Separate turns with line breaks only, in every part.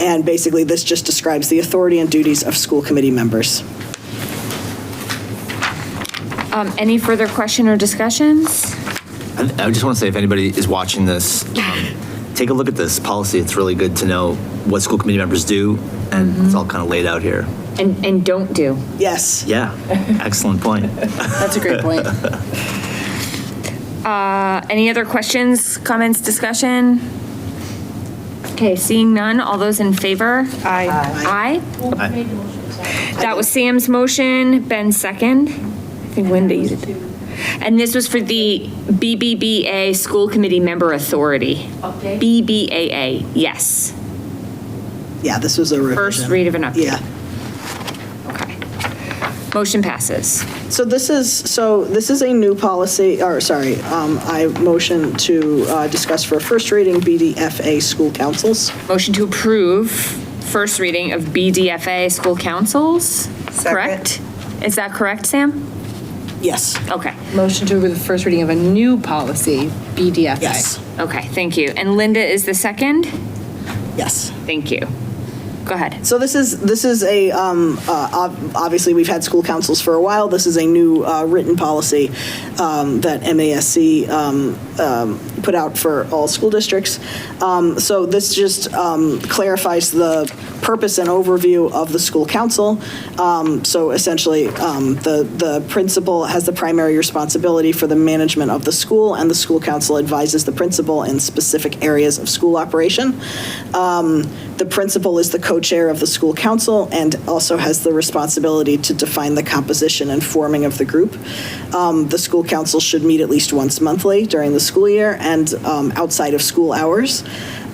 And basically, this just describes the authority and duties of school committee members.
Um, Any further question or discussions?
And I just want to say, if anybody is watching this, um, take a look at this policy. It's really good to know what school committee members do, and it's all kind of laid out here.
And, and don't do.
Yes.
Yeah, excellent point.
That's a great point.
Uh, Any other questions, comments, discussion? Okay, seeing none, all those in favor? Aye. Aye? That was Sam's motion, Ben's second. I think Wendy's. And this was for the BBBA School Committee Member Authority.
Update?
BBAA, yes.
Yeah, this was a revision.
First read of an update.
Yeah.
Okay. Motion passes.
So this is, so this is a new policy, or sorry, um, I motion to uh, discuss for first reading BDFA school councils.
Motion to approve first reading of BDFA School Councils, correct? Is that correct, Sam?
Yes.
Okay,
Motion to approve the first reading of a new policy, BDFA.
Yes.
okay, thank you. And Linda is the second?
Yes.
Thank you. Go ahead.
So this is, this is a, um, uh, ob- obviously, we've had school councils for a while. This is a new uh, written policy um, that MASC um, um, put out for all school districts. Um, So this just um, clarifies the purpose and overview of the school council. Um, So essentially, um, the, the principal has the primary responsibility for the management of the school, and the school council advises the principal in specific areas of school operation. Um, The principal is the co-chair of the school council and also has the responsibility to define the composition and forming of the group. Um, The school council should meet at least once monthly during the school year and um, outside of school hours.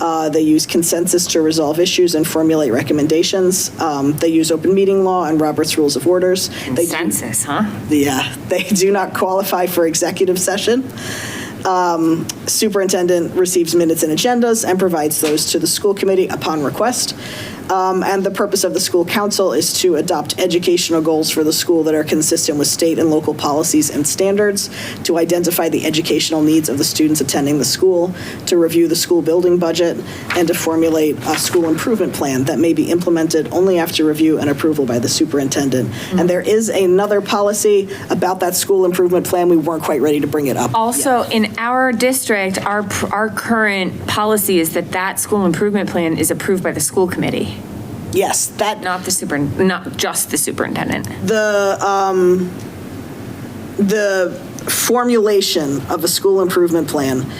Uh, They use consensus to resolve issues and formulate recommendations. Um, They use open meeting law and Robert's Rules of Orders. They do-
Census, huh?
yeah, they do not qualify for executive session. Um, Superintendent receives minutes and agendas and provides those to the school committee upon request. Um, And the purpose of the school council is to adopt educational goals for the school that are consistent with state and local policies and standards, to identify the educational needs of the students attending the school, to review the school building budget, and to formulate a school improvement plan that may be implemented only after review and approval by the superintendent. And there is another policy about that school improvement plan. We weren't quite ready to bring it up.
Also, in our district, our, pr- our current policy is that that school improvement plan is approved by the school committee,
Yes, that,
not the super, not just the superintendent.
the, um, the formulation of a school improvement plan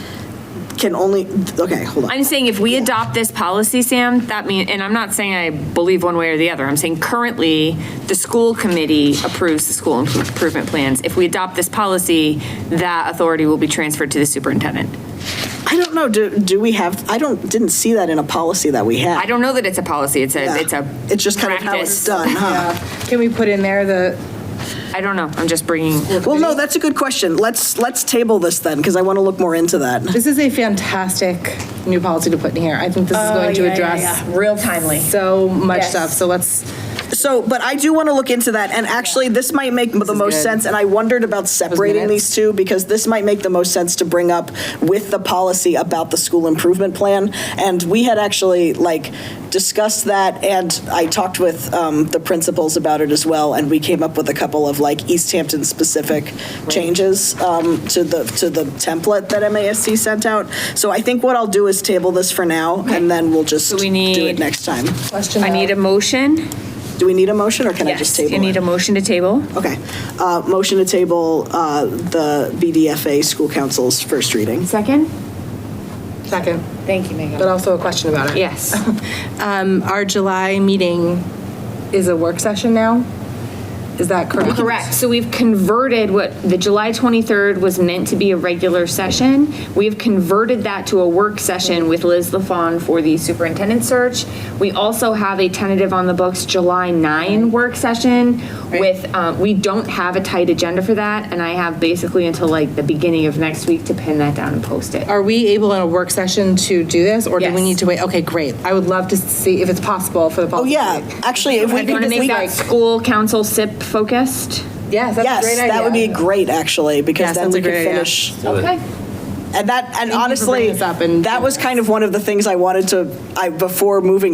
can only, okay, hold on.
I'm saying if we adopt this policy, Sam, that mean, and I'm not saying I believe one way or the other. I'm saying currently, the school committee approves the school improve- improvement plans. If we adopt this policy, that authority will be transferred to the superintendent.
I don't know, do, do we have, I don't, didn't see that in a policy that we had. Uh,
I don't know that it's a policy. It's a, it's a
It's just kind of how it's
practice.
done, huh?
Can we put in there the,
I don't know. I'm just bringing,
Well, no, that's a good question. Let's, let's table this then, because I want to look more into that.
this is a fantastic new policy to put in here. I think this is going to address
real timely.
so much stuff, so let's.
So, but I do want to look into that, and actually, this might make the most
good.
sense, and I wondered about separating
minutes.
these two, because this might make the most sense to bring up with the policy about the school improvement plan, and we had actually, like, discussed that, and I talked with um, the principals about it as well, and we came up with a couple of, like, East Hampton-specific changes um, to the, to the template that MASC sent out. So I think what I'll do is table this for now, and then we'll just do
need-
it next time.
Question.
I need a motion.
Do we need a motion, or can I just
Yes,
table it?
you need a motion to table.
Okay. Uh, Motion to table uh, the BDFA school council's first reading.
Second?
Second,
Thank you, Megan.
but also a question about it.
Yes.
Um, our July meeting is a work session now? Is that correct?
Correct. So we've converted what the July 23rd was meant to be a regular session. We've converted that to a work session with Liz LaFawn for the superintendent search. We also have a tentative on the books July 9 work session with, um, we don't have a tight agenda for that. And I have basically until like the beginning of next week to pin that down and post it.
Are we able in a work session to do this, or do we
Yes.
need to wait? Okay, great. I would love to see if it's possible for the
Oh,
policy.
yeah. Actually, if we
You want
could,
to make
we-
that school council SIP focused?
Yes, that's a
yes,
great idea.
that would be great, actually, because
Yes,
then
that's
we
a
could
great idea.
finish.
Okay.
And that, and
for bringing
honestly,
this up and-
that was kind of one of the things I wanted to, I, before moving